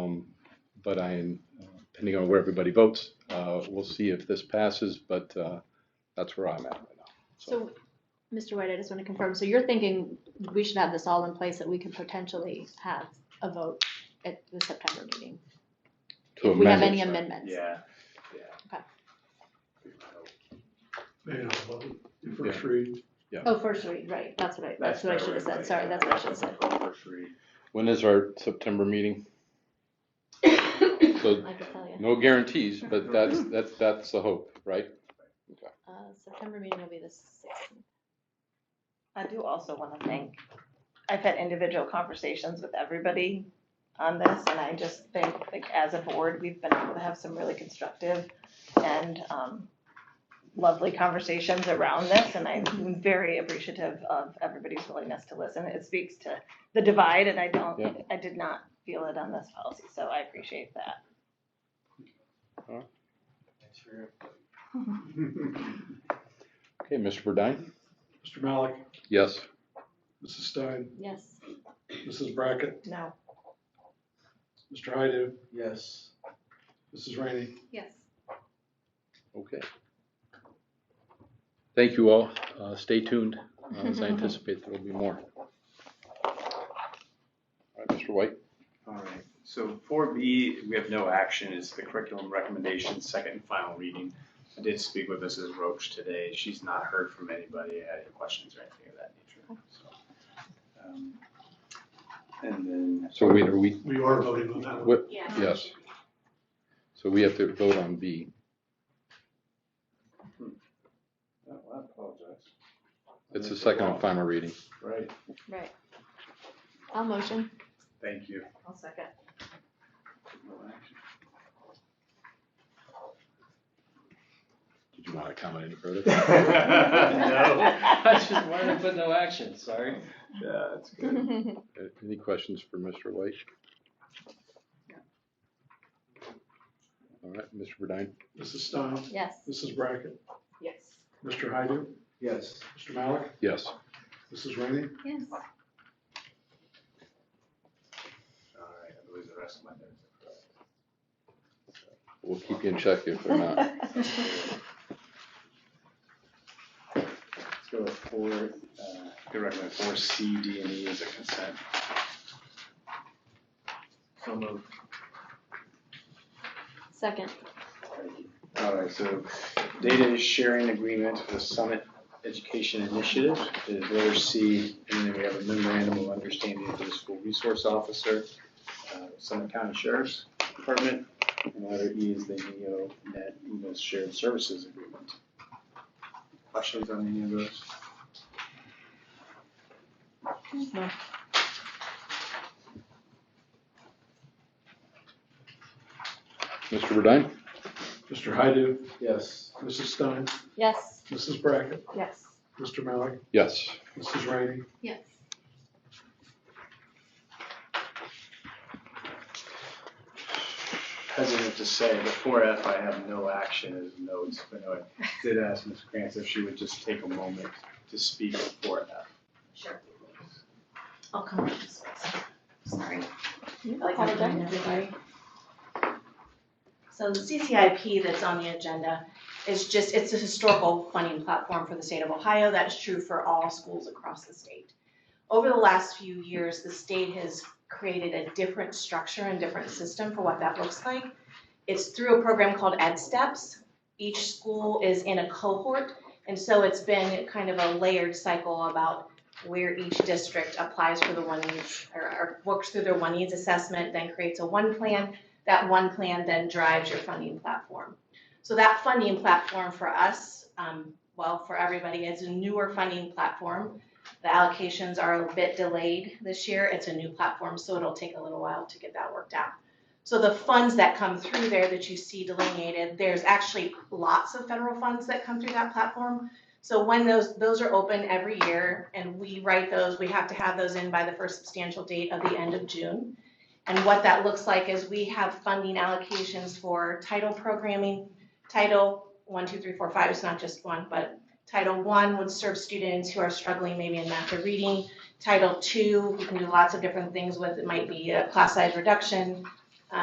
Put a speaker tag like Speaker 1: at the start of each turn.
Speaker 1: Um, but I, uh, depending on where everybody votes, uh, we'll see if this passes, but uh, that's where I'm at right now.
Speaker 2: So, Mr. White, I just want to confirm, so you're thinking we should have this all in place that we could potentially have a vote at the September meeting?
Speaker 1: To
Speaker 2: If we have
Speaker 1: amend
Speaker 2: any
Speaker 1: it.
Speaker 2: amendments?
Speaker 3: Yeah,
Speaker 2: Okay.
Speaker 4: Maybe not vote in
Speaker 1: Yeah.
Speaker 4: first read.
Speaker 2: Oh, first read, right, that's what I, that's what I should have said, sorry, that's what I should have said.
Speaker 1: When is our September meeting? So
Speaker 2: I could tell you.
Speaker 1: no guarantees, but that's, that's, that's the hope, right?
Speaker 2: Uh, September meeting will be the sixteenth.
Speaker 5: I do also want to thank, I've had individual conversations with everybody on this, and I just think, like, as a board, we've been able to have some really constructive and um, lovely conversations around this, and I'm very appreciative of everybody's willingness to listen. It speaks to the divide, and I
Speaker 1: Yeah.
Speaker 5: don't, I did not feel it on this policy, so I appreciate that.
Speaker 1: Okay, Mr. Burdine?
Speaker 4: Mr. Malik,
Speaker 1: Yes.
Speaker 4: Mrs. Stein,
Speaker 2: Yes,
Speaker 4: Mrs. Brackett,
Speaker 5: No,
Speaker 4: Mr. Hydo,
Speaker 3: Yes.
Speaker 4: Mrs. Rainey.
Speaker 2: yes.
Speaker 1: Okay. Thank you all. Uh, Stay tuned, uh, as I anticipate there will be more. All right, Mr. White?
Speaker 3: All right, so four B, we have no action, is the curriculum recommendation, second and final reading. I did speak with Mrs. Roach today, she's not heard from anybody, had any questions or anything of that nature, so. um, And then,
Speaker 1: So wait, are we,
Speaker 4: We are voting on that one.
Speaker 1: what, yes. So we have to vote on B.
Speaker 3: oh, I apologize.
Speaker 1: It's the second and final reading.
Speaker 3: Right,
Speaker 2: Right. I'll motion.
Speaker 3: thank you.
Speaker 5: I'll second.
Speaker 3: No action.
Speaker 1: Did you want to comment any further?
Speaker 3: No.
Speaker 6: I just wanted to put no action, sorry.
Speaker 3: Yeah, that's good.
Speaker 2: Mr.
Speaker 1: Uh, Any questions for Mr. White? All right, Mr. Burdine?
Speaker 4: Mrs. Stein,
Speaker 2: Yes.
Speaker 4: Mrs. Brackett,
Speaker 2: Yes.
Speaker 4: Mr. Hydo,
Speaker 3: Yes.
Speaker 4: Mr. Malik,
Speaker 1: Yes.
Speaker 4: Mrs. Rainey.
Speaker 2: Yes.
Speaker 3: All right, I believe the rest of my notes are correct.
Speaker 1: We'll keep you in check if we're not.
Speaker 3: Let's go with four, uh, I recommend four C, D, and E as a consent. So moved.
Speaker 2: Second,
Speaker 3: All right, so data is sharing agreement for the Summit Education Initiative, is letter C, and then we have a memorandum of understanding for the school resource officer, uh, Summit County Sheriff's Department, and letter E is the NEO Net EMS Shared Services Agreement. Questions on any of those?
Speaker 1: Mr. Burdine?
Speaker 4: Mr. Hydo,
Speaker 3: Yes.
Speaker 4: Mrs. Stein,
Speaker 2: yes.
Speaker 4: Mrs. Brackett,
Speaker 5: Yes.
Speaker 4: Mr. Malik,
Speaker 1: Yes.
Speaker 4: Mrs. Rainey.
Speaker 2: Yes.
Speaker 3: hesitant to say, but four F, I have no action as notes, but I did ask Ms. Krantz if she would just take a moment to speak on four F.
Speaker 5: Sure. I'll come. up with this. Sorry. Like I'm
Speaker 2: Apologize.
Speaker 5: doing everybody. So the CCIP that's on the agenda is just, it's a historical funding platform for the state of Ohio. That's true for all schools across the state. Over the last few years, the state has created a different structure and different system for what that looks like. It's through a program called Ed Steps. Each school is in a cohort, and so it's been kind of a layered cycle about where each district applies for the one needs, or, or works through their one needs assessment, then creates a one plan. That one plan then drives your funding platform. So that funding platform for us, um, well, for everybody, it's a newer funding platform. The allocations are a bit delayed this year. It's a new platform, so it'll take a little while to get that worked out. So the funds that come through there that you see delineated, there's actually lots of federal funds that come through that platform. So when those, those are open every year and we write those, we have to have those in by the first substantial date of the end of June. And what that looks like is we have funding allocations for title programming, title one, two, three, four, five, it's not just one, but title one would serve students who are struggling maybe in math or reading. Title two, we can do lots of different things with, it might be a class size reduction,